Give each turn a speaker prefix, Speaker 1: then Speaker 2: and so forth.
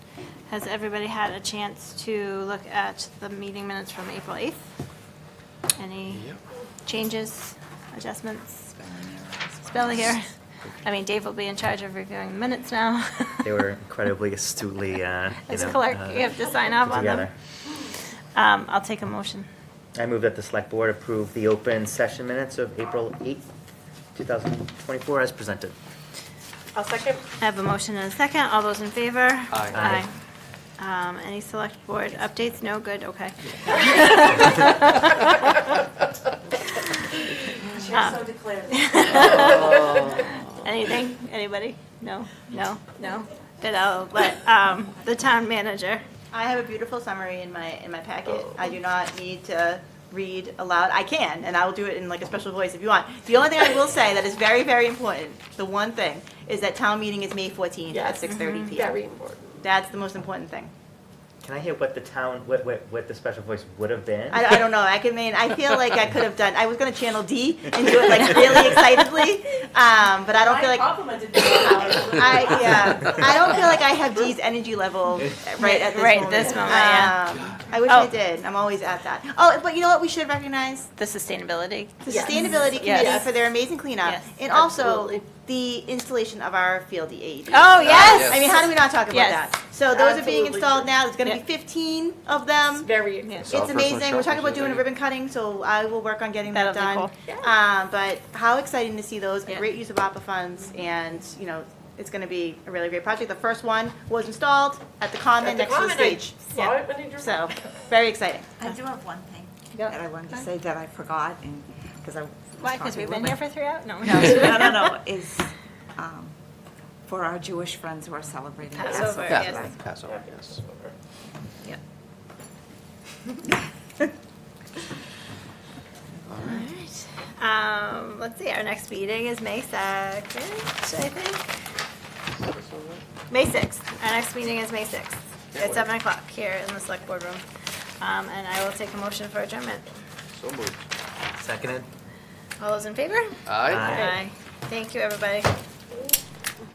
Speaker 1: Has everybody had a chance to look at the meeting minutes from April 8th? Any
Speaker 2: Yep.
Speaker 1: changes, adjustments, spelling error? I mean, Dave will be in charge of reviewing the minutes now.
Speaker 2: They were incredibly astutely, uh, you
Speaker 1: As
Speaker 2: know,
Speaker 1: clerk,
Speaker 2: uh,
Speaker 1: you have to sign off
Speaker 2: put
Speaker 1: on them.
Speaker 2: together.
Speaker 1: Um, I'll take a motion.
Speaker 2: I move that the select board approve the open session minutes of April 8th, 2024 as presented.
Speaker 3: I'll second.
Speaker 1: I have a motion and a second. All those in favor?
Speaker 2: Aye.
Speaker 1: Aye. Um, Any select board updates? No, good, okay.
Speaker 3: Chair so declared.
Speaker 1: Anything? Anybody? No? No? No? Then I'll let um, the town manager. Oh.
Speaker 4: I have a beautiful summary in my, in my packet. I do not need to read aloud. I can, and I will do it in like a special voice if you want. The only thing I will say that is very, very important, the one thing, is that town meeting is May 14th at
Speaker 3: Yes.
Speaker 4: 6:30
Speaker 1: Mm-hmm.
Speaker 3: Very
Speaker 4: PM.
Speaker 3: important.
Speaker 4: That's the most important thing.
Speaker 2: Can I hear what the town, what, what, what the special voice would have been?
Speaker 4: I, I don't know, I can, mean, I feel like I could have done, I was gonna channel D and do it like really excitedly, um, but I don't feel like.
Speaker 3: complimented you on
Speaker 4: I, yeah, I don't feel like I have Dee's energy level right at this
Speaker 1: Right
Speaker 4: moment.
Speaker 1: this moment, yeah.
Speaker 4: Um, I wish
Speaker 1: Oh.
Speaker 4: I did. I'm always at that. Oh, but you know what? We should recognize
Speaker 1: The sustainability.
Speaker 4: the
Speaker 3: Yes.
Speaker 4: sustainability committee
Speaker 1: Yes.
Speaker 4: for their amazing cleanup
Speaker 1: Yes,
Speaker 4: and
Speaker 3: absolutely.
Speaker 4: also the installation of our field the AED.
Speaker 1: Oh,
Speaker 5: yes.
Speaker 4: I mean, how do we not talk about
Speaker 1: Yes.
Speaker 4: that? So those are being
Speaker 3: Absolutely.
Speaker 4: installed now. There's going to
Speaker 1: Yeah.
Speaker 4: be 15 of them.
Speaker 3: Very
Speaker 1: Yeah.
Speaker 3: important.
Speaker 5: So
Speaker 4: It's
Speaker 5: our first one
Speaker 4: amazing. We're talking about
Speaker 5: sharpens
Speaker 4: doing a
Speaker 5: it.
Speaker 4: ribbon cutting, so I will work on getting that
Speaker 1: That'll
Speaker 4: done.
Speaker 1: be
Speaker 3: cool.
Speaker 4: Um, but how exciting to see those, a
Speaker 1: Yeah.
Speaker 4: great use of APA funds, and, you know, it's gonna be a really great project. The first one was installed at the
Speaker 3: At
Speaker 4: Common
Speaker 3: the
Speaker 4: next to the
Speaker 3: common, I
Speaker 4: stage.
Speaker 3: saw it when you drove.
Speaker 4: So, very exciting.
Speaker 6: I do have one thing
Speaker 1: Go.
Speaker 6: that I wanted to say that I forgot and, because I. was
Speaker 1: Why? Because
Speaker 6: talking
Speaker 1: we've
Speaker 6: with
Speaker 1: been
Speaker 6: my-
Speaker 1: here for three hours? No.
Speaker 6: No, no, no, no, is um, for our Jewish friends who are celebrating
Speaker 1: Passover,
Speaker 6: Passover.
Speaker 1: yes.
Speaker 6: right.
Speaker 5: Passover, yes.
Speaker 1: Yeah. All right. Um, let's see, our next meeting is May second, I think. May sixth, our next meeting is May sixth, at seven o'clock here in the select board room. Um, and I will take a motion for adjournment.
Speaker 5: So moved.
Speaker 2: Seconded?
Speaker 1: All those in favor?
Speaker 5: Aye.
Speaker 2: Aye.
Speaker 1: Thank you, everybody.